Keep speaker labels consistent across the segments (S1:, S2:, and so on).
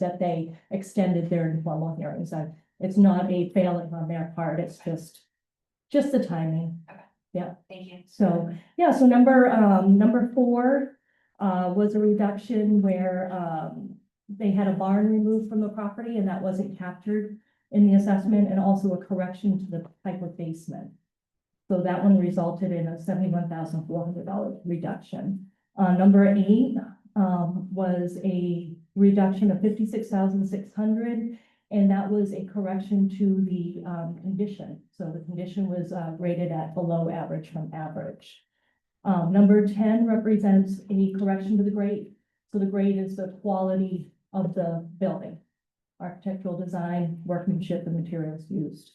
S1: that they extended their informal hearings. I- It's not a failing on their part, it's just, just the timing.
S2: Thank you.
S1: So, yeah, so number, um, number four, uh, was a reduction where, um, they had a barn removed from the property and that wasn't captured in the assessment and also a correction to the type of basement. So that one resulted in a seventy-one thousand four hundred dollar reduction. Uh, number eight, um, was a reduction of fifty-six thousand six hundred. And that was a correction to the, um, condition. So the condition was, uh, rated at below average from average. Um, number ten represents a correction to the grade. So the grade is the quality of the building. Architectural design, workmanship, and materials used.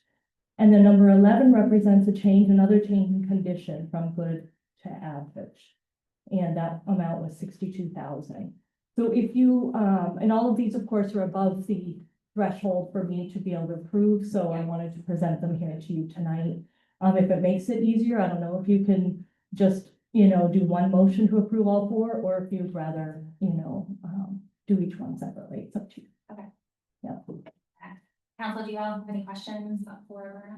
S1: And then number eleven represents a change, another change in condition from good to average. And that amount was sixty-two thousand. So if you, um, and all of these, of course, are above the threshold for me to be able to approve, so I wanted to present them here to you tonight. Um, if it makes it easier, I don't know if you can just, you know, do one motion to approve all four, or if you'd rather, you know, um, do each one separately, it's up to you.
S2: Okay.
S1: Yeah.
S2: Council, do you all have any questions for?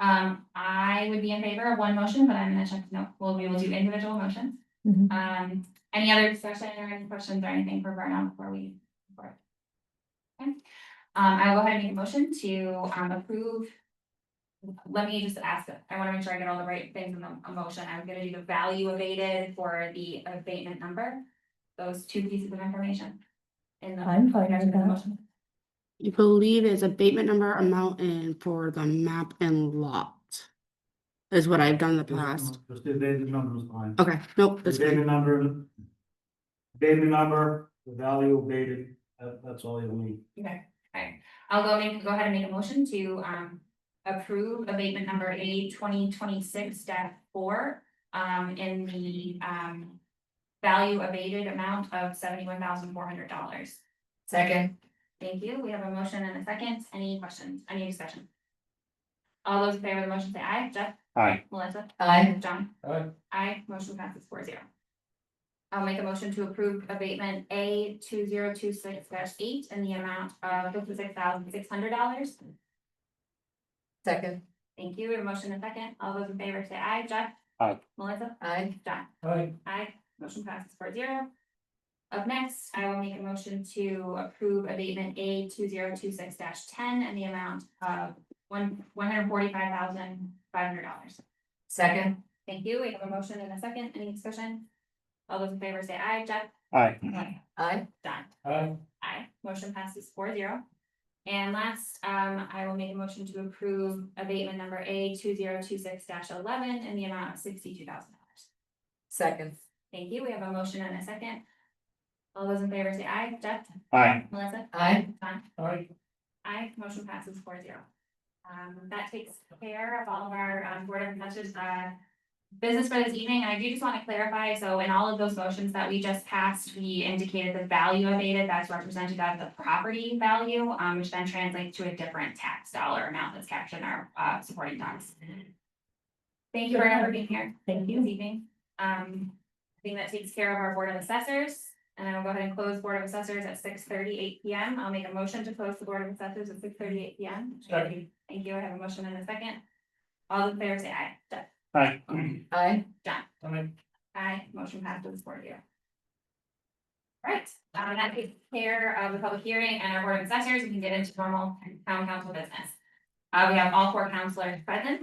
S2: Um, I would be in favor of one motion, but I'm gonna check, no, well, we will do individual motions.
S1: Mhm.
S2: Um, any other discussion or any questions or anything for Vernon before we? before- Okay, um, I will go ahead and make a motion to, um, approve. Let me just ask, I wanna make sure I get all the right things in the a motion. I'm gonna do the value abated for the abatement number. Those two pieces of information. In the.
S1: I'm fine with
S2: in the
S1: that.
S2: motion.
S3: You believe it's abatement number, amount, and for the map and lot. Is what I've done in the past.
S4: Just the abatement number is fine.
S3: Okay, nope,
S4: The
S3: that's good.
S4: abatement number. Abatement number, the value abated, that, that's all you need.
S2: Okay, alright, I'll go make, go ahead and make a motion to um approve abatement number A twenty twenty six dash four. Um in the um value abated amount of seventy one thousand four hundred dollars.
S5: Second,
S2: Thank you, we have a motion and a second, any questions, any discussion? All those in favor of the motion say aye, Jeff?
S4: Aye.
S2: Melissa?
S5: Aye.
S2: John?
S4: Aye.
S2: Aye, motion passes four zero. I'll make a motion to approve abatement A two zero two six eight in the amount of fifty six thousand six hundred dollars.
S5: second,
S2: Thank you, we have a motion and a second, all those in favor say aye, Jeff?
S4: Aye.
S2: Melissa?
S5: aye,
S2: John?
S4: Aye.
S2: Aye, motion passes four zero. Up next, I will make a motion to approve abatement A two zero two six ten and the amount of one, one hundred forty-five thousand five hundred dollars.
S5: second,
S2: Thank you, we have a motion and a second, any discussion? All those in favor say aye, Jeff?
S4: Aye.
S2: Aye.
S5: aye,
S2: Done.
S4: Aye.
S2: Aye, motion passes four zero. And last, um, I will make a motion to approve abatement number A two zero two six eleven in the amount of sixty-two thousand dollars.
S5: second,
S2: Thank you. We have a motion and a second. All those in favor say aye. Jeff?
S4: Aye.
S2: Melissa?
S5: aye,
S2: John?
S4: Aye.
S2: Aye. Motion passes four zero. Um, that takes care of all of our, um, board of messages, uh, business for this evening. I do just want to clarify, so in all of those motions that we just passed, we indicated the value abated that's represented as the property value, um, which then translates to a different tax dollar amount that's captured in our, uh, supporting docs. Thank you Vernon, for being here.
S1: Thank you.
S2: This evening. Um, I think that takes care of our Board of Assessors. And I will go ahead and close Board of Assessors at six thirty-eight P M. I'll make a motion to close the Board of Assessors at six thirty-eight P M.
S4: Second.
S2: Thank you. I have a motion and a second. All those in favor say aye. Jeff?
S4: Aye.
S5: aye,
S4: Aye.
S2: Aye, motion passes four zero. Right, um, that takes care of the public hearing and our board of assessors, we can get into normal town council business. Uh, we have all four councilors present.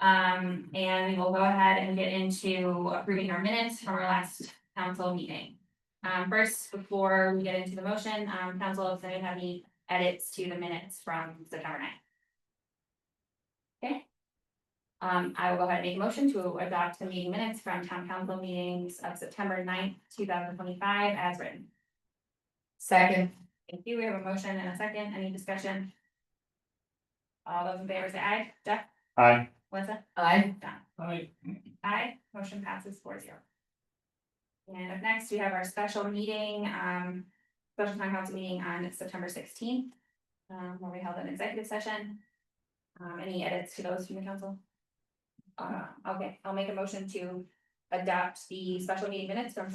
S2: Um, and we will go ahead and get into approving our minutes from our last council meeting. Um, first, before we get into the motion, um, council, if anyone have any edits to the minutes from September 9th. Okay. Um, I will go ahead and make a motion to adopt the meeting minutes from town council meetings of September 9th, two thousand twenty-five as written.
S5: second,
S2: Thank you. We have a motion and a second. Any discussion? All those in favor say aye. Jeff?
S4: Aye.
S2: Melissa?
S5: aye,
S2: Done.
S4: Aye.
S2: Aye, motion passes four zero. And up next, we have our special meeting, um, special town council meeting on September sixteenth, um, where we held an executive session. Um, any edits to those from the council? Uh, okay, I'll make a motion to adopt the special meeting minutes from